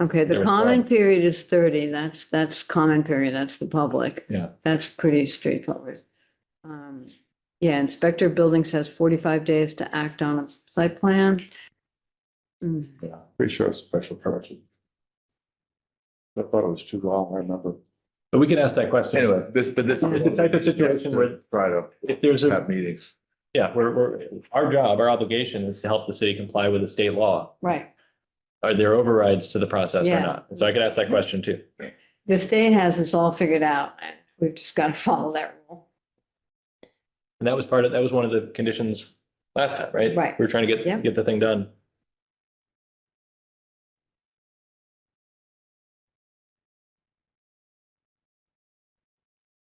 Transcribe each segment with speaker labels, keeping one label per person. Speaker 1: Okay,
Speaker 2: There
Speaker 1: the
Speaker 2: was
Speaker 1: common
Speaker 2: one.
Speaker 1: period is thirty, that's, that's common period, that's the public.
Speaker 2: Yeah.
Speaker 1: That's pretty straightforward. Um, Yeah, inspector of buildings has forty-five days to act on a site plan. Hmm,
Speaker 2: Yeah.
Speaker 3: Pretty sure it's special permit. I thought it was too long, I remember.
Speaker 2: But we can ask that question.
Speaker 3: Anyway, this, but this.
Speaker 2: It's a type of situation where-
Speaker 3: Try to
Speaker 2: If there's a,
Speaker 3: have meetings.
Speaker 2: yeah, we're, we're, our job, our obligation is to help the city comply with the state law.
Speaker 1: Right,
Speaker 2: Are there overrides to the process or
Speaker 1: Yeah.
Speaker 2: not? So I could ask that question too.
Speaker 1: the state has this all figured out, and we've just got to follow that rule.
Speaker 2: And that was part of, that was one of the conditions last time, right?
Speaker 1: Right.
Speaker 2: We were trying to
Speaker 1: Yeah.
Speaker 2: get, get the thing done.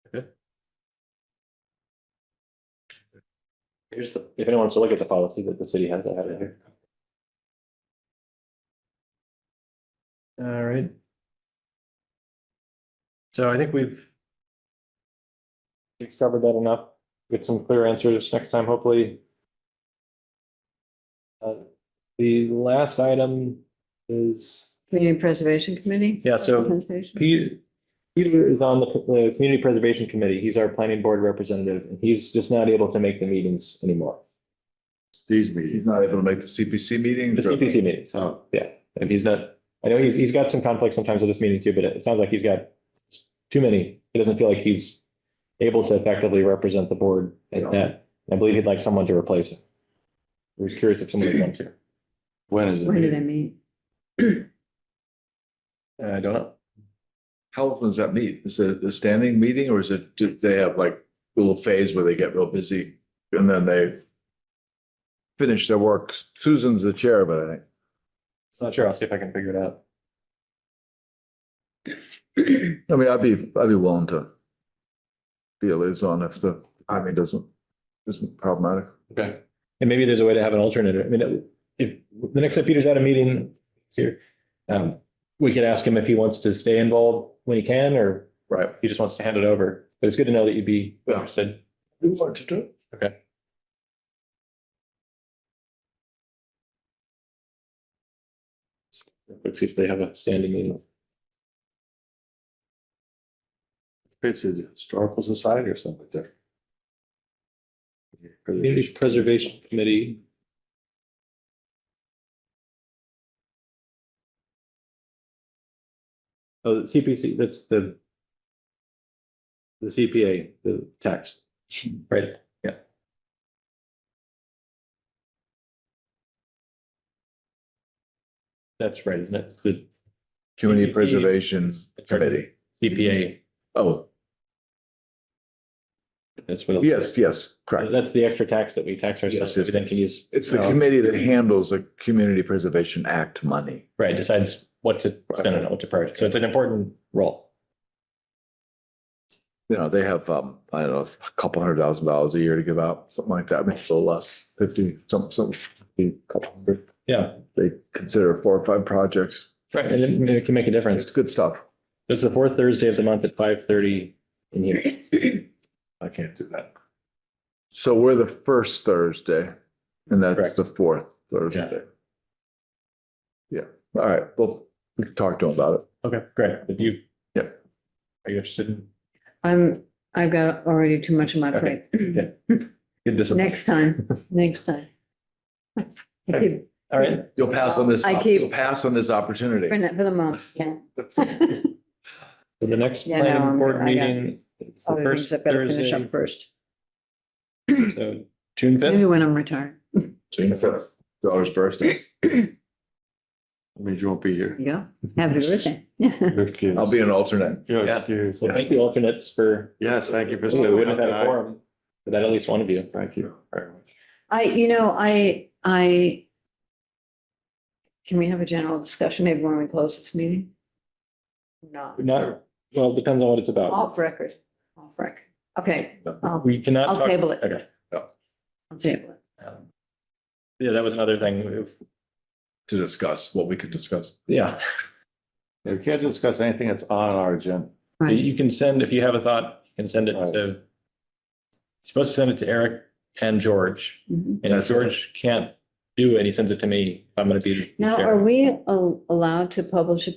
Speaker 2: Okay. Here's the, if anyone wants to look at the policy that the city has, I have it here. All right. So I think we've we've covered that enough get some clear answers next time, hopefully. Uh, The last item is,
Speaker 1: Community Preservation Committee?
Speaker 2: Yeah, so-
Speaker 1: Presentation?
Speaker 2: Pe- Peter is on the, the Community Preservation Committee. He's our planning board representative, and he's just not able to make the meetings anymore,
Speaker 3: These meetings. He's not able to make the CPC meeting.
Speaker 2: the CPC E meetings.
Speaker 3: Oh,
Speaker 2: And he's not, I know he's, he's got some conflict sometimes with this meeting too, but it sounds like he's got too many. He doesn't feel like he's able to effectively represent the board at that. I believe he'd like someone to replace him. I was curious if someone would want to.
Speaker 3: when is it?
Speaker 1: When do they meet?
Speaker 2: Uh, I don't know.
Speaker 3: How often does that meet? Is it a standing meeting or is it, do they have like a little phase where they get real busy and then they finish their work? Susan's the chair of it, I think.
Speaker 2: It's not sure. I'll see if I can figure it out.
Speaker 3: I mean, I'd be, I'd be willing to be a liaison if the timing doesn't, isn't problematic.
Speaker 2: Okay. And maybe there's a way to have an alternate. I mean, if the next time Peter's at a meeting he's here, um, we could ask him if he wants to stay involved when he can, or
Speaker 3: Right.
Speaker 2: if he just wants to hand it over. But it's good to know that you'd be
Speaker 3: Yeah.
Speaker 2: interested.
Speaker 3: We want to do it.
Speaker 2: Let's see if they have a standing meeting.
Speaker 3: It's a historical society or something like that.
Speaker 2: Community Preservation Committee. Oh, the CPC, that's the the CPA, the tax, right? Yeah. That's right, isn't it? It's the
Speaker 3: Community
Speaker 2: CPC.
Speaker 3: Preservation Committee.
Speaker 2: CPA.
Speaker 3: Oh,
Speaker 2: That's what.
Speaker 3: yes, yes, correct.
Speaker 2: That's the extra tax that we tax ourselves.
Speaker 3: Yes, yes,
Speaker 2: We then can
Speaker 3: yes.
Speaker 2: use.
Speaker 3: It's the
Speaker 2: Uh,
Speaker 3: committee that handles the Community Preservation Act money.
Speaker 2: Right, decides what to spend and what to prioritize. So it's an important role.
Speaker 3: You know, they have, um, I don't know, a couple hundred thousand dollars a year to give out, something like that, maybe a little less, fifty, some, some, a couple hundred.
Speaker 2: Yeah,
Speaker 3: They consider four or five projects.
Speaker 2: right. And it- it can make a
Speaker 3: It's
Speaker 2: difference.
Speaker 3: good stuff.
Speaker 2: It's the fourth Thursday of the month at five thirty in here.
Speaker 3: I can't do that. So we're the first Thursday and that's
Speaker 2: Correct.
Speaker 3: the fourth Thursday. Yeah, all right, well, we can talk to him about
Speaker 2: Okay, great. Did you?
Speaker 3: Yep.
Speaker 2: Are you interested in?
Speaker 1: I'm, I've got already too much on my plate.
Speaker 2: Okay. Good discipline.
Speaker 1: Next time, next time. I keep-
Speaker 2: All right.
Speaker 3: it. You'll pass on this,
Speaker 1: I keep-
Speaker 3: you'll pass on this opportunity.
Speaker 1: For the- for the moment, yeah.
Speaker 2: So the next
Speaker 1: Yeah, no,
Speaker 2: planning
Speaker 1: I'm-
Speaker 2: board
Speaker 1: I got
Speaker 2: meeting. it's the
Speaker 1: Other things
Speaker 2: first
Speaker 1: I've got to finish
Speaker 2: Thursday,
Speaker 1: up first.
Speaker 2: So June
Speaker 1: Maybe
Speaker 2: fifth.
Speaker 1: when I'm retired.
Speaker 3: June fifth, daughter's birthday. Means you won't be here.
Speaker 1: Yeah, happy birthday.
Speaker 3: I'll be an alternate.
Speaker 2: Yeah. So thank you alternates for.
Speaker 4: Yes, thank you for
Speaker 2: We
Speaker 4: stepping
Speaker 2: wouldn't
Speaker 4: up
Speaker 2: have had a
Speaker 4: tonight.
Speaker 2: forum without at least one of you.
Speaker 4: Thank you very much.
Speaker 1: I, you know, I, I. Can we have a general discussion maybe when we close this meeting? No,
Speaker 2: Not, well, it depends on what it's about.
Speaker 1: off record, off record. Okay, I'll,
Speaker 2: We cannot.
Speaker 1: I'll
Speaker 2: talk-
Speaker 1: table it.
Speaker 2: Okay.
Speaker 1: I'll table it.
Speaker 2: Um, Yeah, that was another thing. If-
Speaker 3: To discuss what we could discuss.
Speaker 2: Yeah,
Speaker 4: We can't discuss anything that's on our agenda.
Speaker 2: So
Speaker 1: Right.
Speaker 2: you can send, if you have a thought, you can send it
Speaker 4: Right.
Speaker 2: to, you're supposed to send it to Eric and George.
Speaker 1: Mhm.
Speaker 2: And if
Speaker 3: That's it.
Speaker 2: George can't do it, he sends it to me. I'm going to be. the
Speaker 1: Now,
Speaker 2: chair.
Speaker 1: are we al- allowed to publish a